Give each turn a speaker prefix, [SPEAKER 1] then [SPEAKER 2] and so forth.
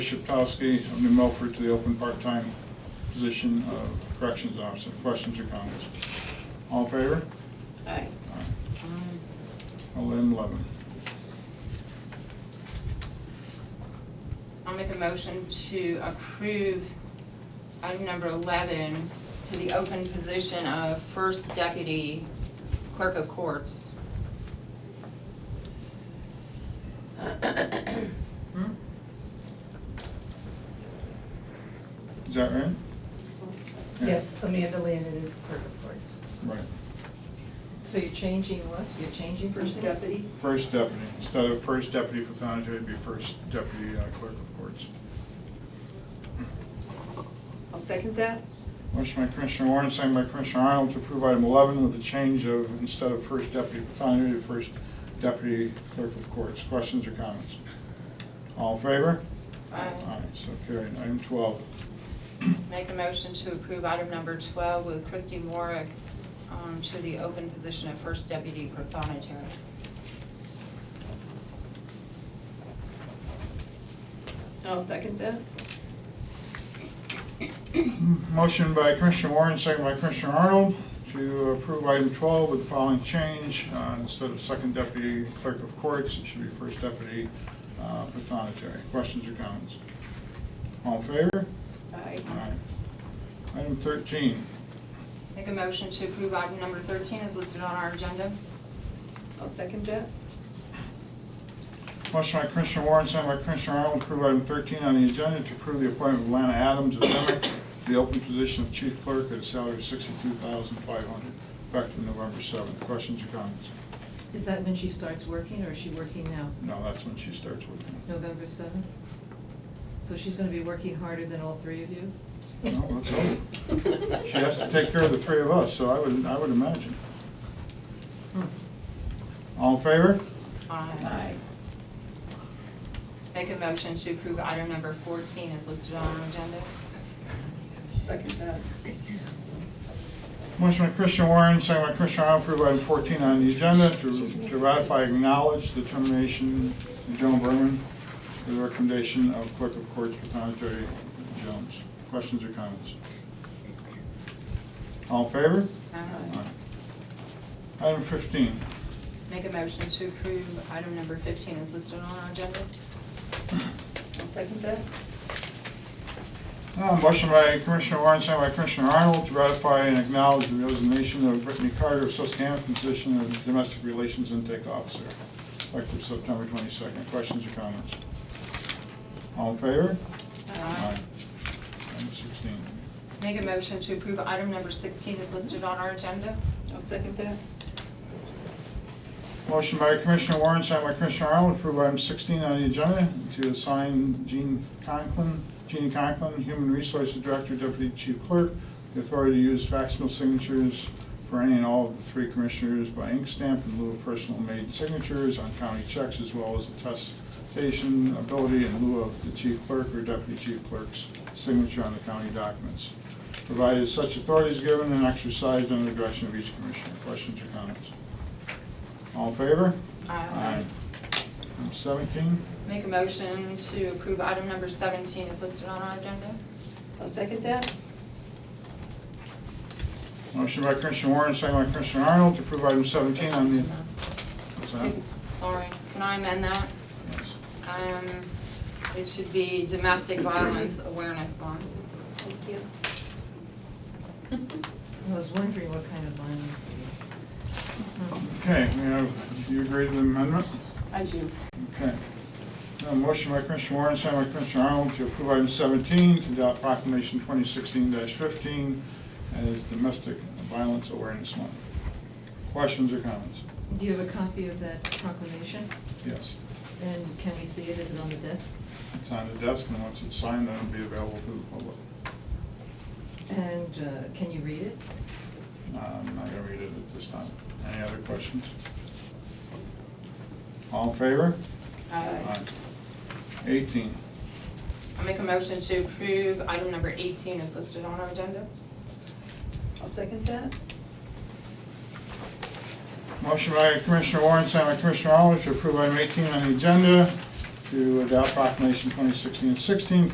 [SPEAKER 1] Bishop Towski of New Milford to the open part-time position of corrections officer. Questions or comments? All in favor?
[SPEAKER 2] Aye.
[SPEAKER 1] Aye.
[SPEAKER 3] Um,
[SPEAKER 1] Eleven eleven.
[SPEAKER 3] I'll make a motion to approve item number 11 to the open position of First Deputy Clerk of Courts. Hmm?
[SPEAKER 1] Is that right? Yeah.
[SPEAKER 4] Yes, Amanda Landon is clerk of courts.
[SPEAKER 1] Right.
[SPEAKER 4] So you're changing what? You're changing something?
[SPEAKER 2] First deputy?
[SPEAKER 1] First deputy. Instead of first deputy pathonetary, it'd be first deputy uh, clerk of courts.
[SPEAKER 2] I'll second that.
[SPEAKER 1] Motion by Commissioner Warren, second by Commissioner Arnold to approve item eleven with the change of, instead of first deputy pathonetary, to first deputy clerk of courts. Questions or comments? All in favor?
[SPEAKER 3] Aye.
[SPEAKER 1] so carried. Item twelve.
[SPEAKER 3] Make a motion to approve item number 12 with Christy Morick um, to the open position of First Deputy Prothonotary.
[SPEAKER 2] I'll second that.
[SPEAKER 1] Motion by Commissioner Warren, second by Commissioner Arnold, to approve item 12 with the following change. Uh, Instead of second deputy clerk of courts, it should be first deputy uh, pathonetary. Questions or comments? All in favor?
[SPEAKER 2] Aye.
[SPEAKER 1] Aye. Item 13.
[SPEAKER 3] Make a motion to approve item number 13 as listed on our agenda.
[SPEAKER 2] I'll second that.
[SPEAKER 1] Motion by Commissioner Warren, second by Commissioner Arnold, to approve item 13 on the agenda to approve the appointment of Lana Adams of Emmett to the open position of chief clerk at a salary of $62,500, effective November 7th. Questions or comments?
[SPEAKER 4] Is that when she starts working or is she working now?
[SPEAKER 1] No, that's when she starts working.
[SPEAKER 4] November seventh? So she's gonna be working harder than all three of you?
[SPEAKER 1] No, let's hope. She has to take care of the three of us, so I would, I would imagine.
[SPEAKER 4] Hmm.
[SPEAKER 1] All in favor?
[SPEAKER 3] Aye.
[SPEAKER 2] Aye.
[SPEAKER 3] Make a motion to approve item number 14 as listed on our agenda.
[SPEAKER 2] Second that.
[SPEAKER 1] Motion by Commissioner Warren, second by Commissioner Arnold, approve item 14 on the agenda to to ratify, acknowledge the termination of Joan Berman, the recommendation of Clerk of Courts, Patonetary Jones. Questions or comments? All in favor?
[SPEAKER 3] Aye.
[SPEAKER 1] Aye. Item 15.
[SPEAKER 3] Make a motion to approve item number 15 is listed on our agenda.
[SPEAKER 2] I'll second that.
[SPEAKER 1] Uh, Motion by Commissioner Warren, second by Commissioner Arnold, to ratify and acknowledge the resignation of Brittany Carter of Susquehanna from position of Domestic Relations Intake Officer, effective September 22nd. Questions or comments? All in favor? Item 16.
[SPEAKER 3] Make a motion to approve item number 16 is listed on our agenda.
[SPEAKER 2] I'll second that.
[SPEAKER 1] Motion by Commissioner Warren, second by Commissioner Arnold, to approve item 16 on the agenda to assign Jean Conklin, Jean Conklin, Human Resources Director, Deputy Chief Clerk, the authority to use factional signatures for any and all of the three commissioners by ink stamp in lieu of personal made signatures on county checks as well as attestation ability in lieu of the chief clerk or deputy chief clerk's signature on the county documents, provided such authority is given and exercised under the direction of each commissioner. Questions or comments? All in favor?
[SPEAKER 3] Aye.
[SPEAKER 1] Item 17,
[SPEAKER 3] Make a motion to approve item number 17 is listed on our agenda.
[SPEAKER 2] I'll second that.
[SPEAKER 1] motion by Commissioner Warren, second by Commissioner Arnold to approve item 17 on the, what's that?
[SPEAKER 3] Sorry, can I amend that?
[SPEAKER 1] Yes.
[SPEAKER 3] Um, It should be Domestic Violence Awareness Month.
[SPEAKER 2] Thank you.
[SPEAKER 4] I was wondering what kind of violence it
[SPEAKER 1] Okay, we have, do you agree to the amendment?
[SPEAKER 2] I do.
[SPEAKER 1] Okay. Now, motion by Commissioner Warren, second by Commissioner Arnold to approve item 17 to adopt proclamation 2016-15 as Domestic Violence Awareness Month. Questions or comments?
[SPEAKER 4] is. Do you have a copy of that proclamation?
[SPEAKER 1] Yes.
[SPEAKER 4] And can we see it? Is it on the desk?
[SPEAKER 1] It's on the desk, and once it's signed, it'll be available to the public.
[SPEAKER 4] And uh, can you read it?
[SPEAKER 1] Uh, I'm not gonna read it at this time. Any other questions? All in favor?
[SPEAKER 2] Aye.
[SPEAKER 1] Eighteen.
[SPEAKER 3] I'll Uh, make a motion to approve item number 18 is listed on our agenda.
[SPEAKER 2] I'll second that.
[SPEAKER 1] Motion by Commissioner Warren, signed by Commissioner Arnold, to approve item eighteen on the agenda to adopt proclamation 2016-16